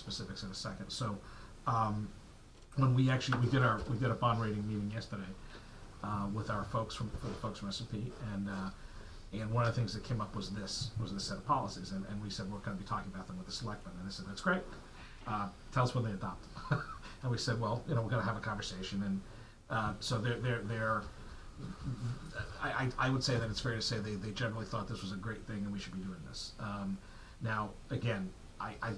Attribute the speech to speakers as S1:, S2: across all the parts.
S1: specifics in a second. So, um, when we actually, we did our, we did a bond rating meeting yesterday, uh, with our folks from, for the folks from S and P, and, uh, and one of the things that came up was this, was this set of policies, and, and we said, we're gonna be talking about them with the selectmen, and they said, that's great. Uh, tell us when they adopt them. And we said, well, you know, we're gonna have a conversation, and, uh, so they're, they're, they're, I, I, I would say that it's fair to say they, they generally thought this was a great thing and we should be doing this. Um, now, again, I, I,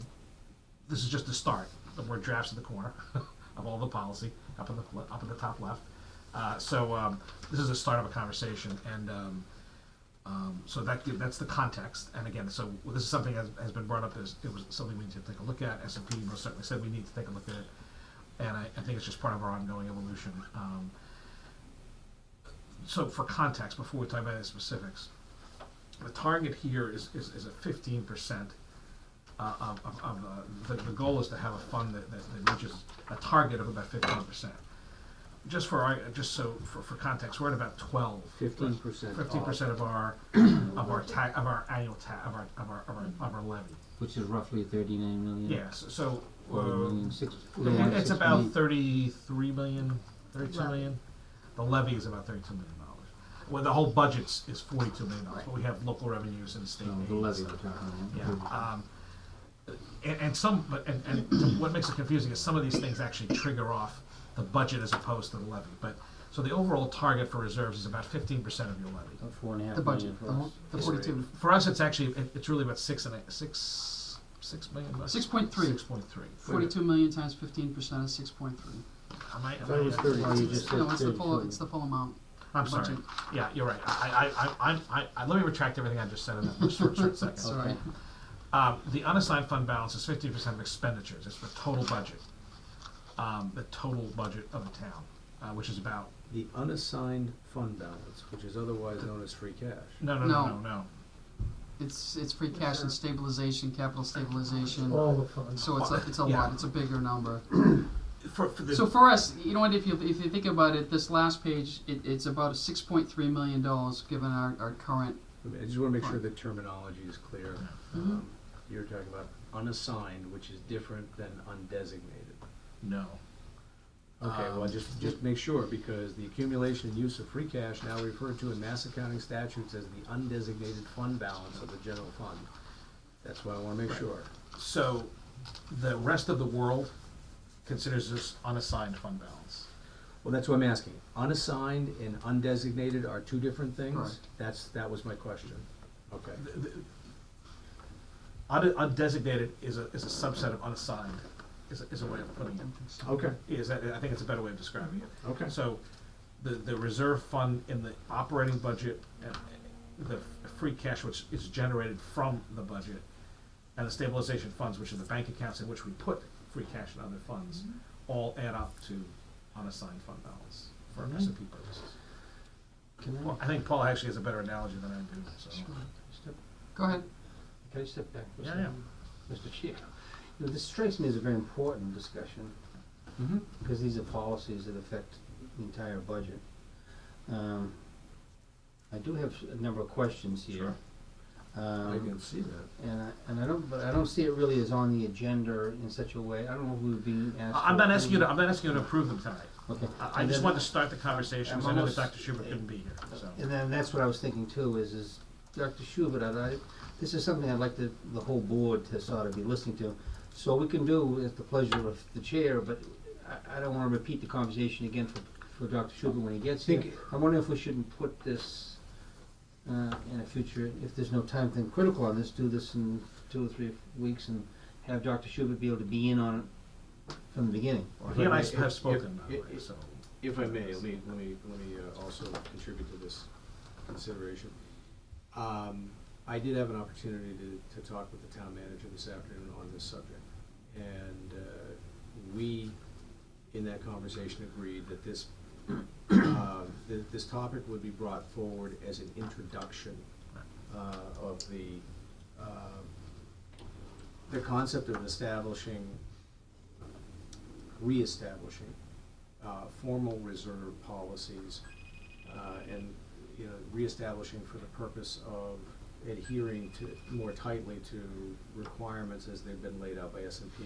S1: this is just the start. The word drafts in the corner of all the policy up in the le- up in the top left. Uh, so um, this is the start of a conversation, and um, um, so that give, that's the context. And again, so this is something that has, has been brought up as it was something we need to take a look at. S and P most certainly said we need to take a look at it, and I, I think it's just part of our ongoing evolution. Um, so for context, before we talk about any specifics, the target here is, is, is a fifteen percent uh, of, of, of, uh, the, the goal is to have a fund that, that, that reaches a target of about fifteen percent. Just for our, just so, for, for context, we're at about twelve.
S2: Fifteen percent
S1: Fifteen percent of our, of our ta, of our annual ta, of our, of our, of our, of our levy.
S2: Which is roughly thirty-nine million.
S1: Yes, so,
S2: Or a
S1: uh,
S2: million six-
S1: it- it's
S2: six
S1: about
S2: million.
S1: thirty-three million, thirty-two
S3: Levy.
S1: million. The levy is about thirty-two million dollars. Well, the whole budget's is forty-two million dollars, but we have local revenues and state aid.
S2: No, the
S1: and
S2: levy
S1: stuff.
S2: we're talking
S1: Yeah,
S2: about.
S1: um, and, and some, but, and, and what makes it confusing is some of these things actually trigger off the budget as opposed to the levy, but, so the overall target for reserves is about fifteen percent of your levy.
S2: About four and a half
S4: The
S2: million
S4: budget,
S2: for
S4: the whole,
S2: us.
S4: the
S1: Yes.
S4: forty-two,
S1: For us, it's actually, it, it's really about six and a, six, six million bucks?
S4: six point three.
S1: Six point three.
S4: Forty-two million times fifteen percent is six point three.
S1: Am I, am
S2: thought
S1: I-
S2: it was 30. Oh, you just said
S4: No, it's the full,
S2: 32.
S4: it's the full amount.
S1: I'm sorry,
S4: Budget.
S1: yeah, you're right, I, I, I, I'm- I, I, let me retract everything I just said in that short, short second.
S4: Sorry.
S1: Um, the unassigned fund balance is fifteen percent of expenditures, it's for total budget. Um, the total budget of the town, uh, which is about,
S5: The unassigned fund balance, which is otherwise known as free cash.
S1: no, no, no, no,
S4: No.
S1: no.
S4: It's, it's free cash and stabilization, capital stabilization. So it's a, it's a
S1: Yeah.
S4: lot, it's a bigger number.
S1: For, for the,
S4: So for us, you know what, if you, if you think about it, this last page, it, it's about six point three million dollars given our, our current,
S5: I mean, I just wanna make sure the terminology is clear.
S2: Mm-hmm.
S5: Um, You're talking about unassigned, which is different than undesignated.
S1: no.
S5: Okay,
S1: Um,
S5: well, just, just make sure, because the accumulation and use of free cash now referred to in mass accounting statutes as the undesignated fund balance of the general fund. That's why I wanna make sure.
S1: So the rest of the world considers this unassigned fund balance.
S5: Well, that's what I'm asking. Unassigned and undesignated are two different things?
S4: Correct.
S5: That's, that was my question. Okay.
S1: Un- undesignated is a, is a subset of unassigned, is, a- is a way of putting it.
S5: Okay,
S1: Is that, I think it's a better way of describing it.
S5: okay.
S1: So the, the reserve fund in the operating budget, and the f- free cash which is generated from the budget, and the stabilization funds, which are the bank accounts in which we put free cash and other funds, all add up to unassigned fund balance for S and P purposes.
S2: Can I,
S1: Well, I think Paul actually has a better analogy than I do, so.
S2: step,
S4: go ahead.
S2: can I step back for a
S1: Yeah,
S2: second? Mr. Chair, you know, this strikes me as a very important discussion.
S5: Mhm.
S2: because these are policies that affect the entire budget. Um, I do have a number of questions here.
S5: I can
S2: Um,
S5: see that.
S2: and I, and I don't, but I don't see it really as on the agenda in such a way, I don't know if we were being asked.
S1: I- I'm not asking you to, I'm not asking you to approve them tonight.
S2: Okay.
S1: I, I
S2: And
S1: just
S2: then-
S1: wanted to start the conversation, 'cause I know that
S2: I'm almost-
S1: Dr. Schubert couldn't be here, so.
S2: And then that's what I was thinking too, is, is Dr. Schubert, I, I- this is something I'd like the, the whole board to sort of be listening to. So we can do at the pleasure of the chair, but I, I don't wanna repeat the conversation again for, for Dr. Schubert when he gets here.
S5: Think-
S2: I'm wondering if we shouldn't put this, uh, in a future, if there's no time thing critical on this, do this in two or three weeks and have Dr. Schubert be able to be in on it from the beginning.
S1: Well, He and I have spoken, by the way, so.
S5: If I may, let me, let me, let me uh, also contribute to this consideration. Um, I did have an opportunity to, to talk with the town manager this afternoon on this subject. And, uh, we, in that conversation, agreed that this, uh, that this topic would be brought forward as an introduction, uh, of the, uh, the concept of establishing, reestablishing uh, formal reserve policies uh, and, you know, reestablishing for the purpose of adhering to, more tightly to requirements as they've been laid out by S and P